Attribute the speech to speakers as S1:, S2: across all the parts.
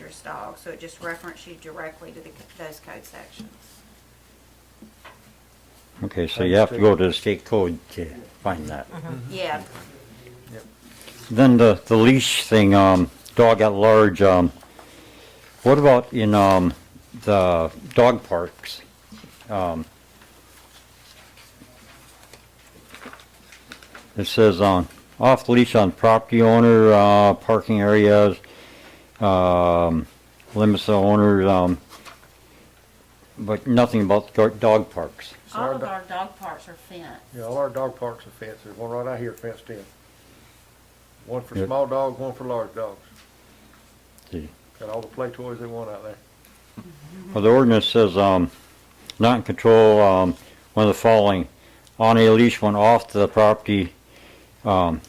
S1: dangerous dog, so it just referenced you directly to the, those code sections.
S2: Okay, so you have to go to the state code to find that.
S1: Yeah,
S2: Then the, the leash thing, um, dog at large, um, what about in, um, the dog parks? Um, It says, um, off leash on property owner, uh, parking areas, um, limits the owner, um, but nothing about go- dog parks.
S3: So
S4: All
S3: our
S4: of
S3: do-
S4: our dog parks are fenced.
S3: Yeah, all our dog parks are fenced, there's one right out here fenced in. One for
S2: Yeah.
S3: small dogs, one for large dogs,
S2: See.
S3: got all the play toys they want out there.
S2: Well, the ordinance says, um, not in control, um, one of the following, on a leash when off the property, um,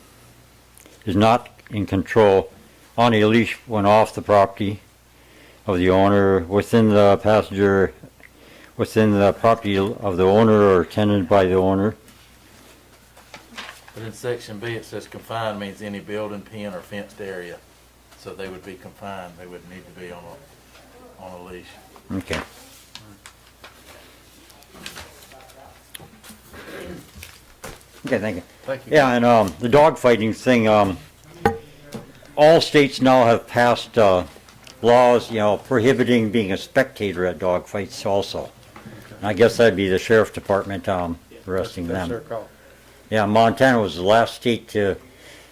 S2: is not in control, on a leash when off the property of the owner, within the passenger, within the property of the owner or tenanted by the owner.
S5: But in section B, it says confined means any building, pen, or fenced area. So they would be confined, they wouldn't need to be on a, on a leash.
S2: Okay. Okay, thank you.
S3: Thank you.
S2: Yeah, and um, the dog fighting thing, um, all states now have passed uh, laws, you know, prohibiting being a spectator at dog fights also. And I guess that'd be the sheriff's department um, arresting
S3: That's their
S2: them.
S3: call,
S2: Yeah, Montana was the last state to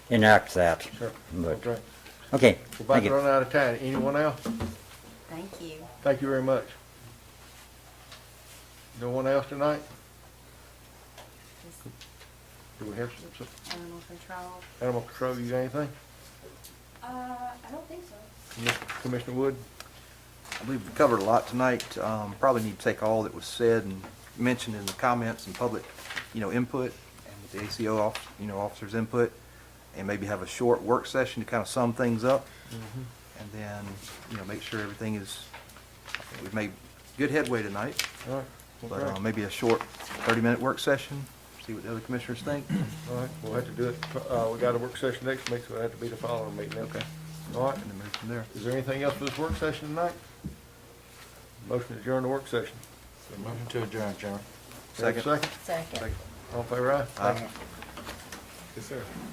S2: enact that.
S3: sure,
S2: But,
S3: okay.
S2: okay,
S3: We're about
S2: thank
S3: to
S2: you.
S3: run out of time, anyone else?
S4: Thank you.
S3: Thank you very much. No one else tonight? Do we have some, some
S4: Animal control.
S3: animal control, you got anything?
S6: Uh, I don't think so.
S3: Commis- Commissioner Wood,
S7: We've covered a lot tonight. Um, Probably need to take all that was said and mentioned in the comments and public, you know, input and with the ACO, off- you know, officers' input, and maybe have a short work session to kind of sum things up. And then, you know, make sure everything is, I think we've made good headway tonight,
S3: all right,
S7: but uh,
S3: okay,
S7: maybe a short 30-minute work session, see what the other commissioners think.
S3: all right, we'll have to do it, uh, we got a work session next week, so it'll have to be the following meeting, okay? All right,
S7: And then move from there.
S3: Is there anything else for this work session tonight? Motion to adjourn the work session.
S5: So Motion to adjourn, Chairman.
S3: Second.
S7: Second.
S3: Second. All in favor, aye?
S7: Aye.
S3: Yes, sir.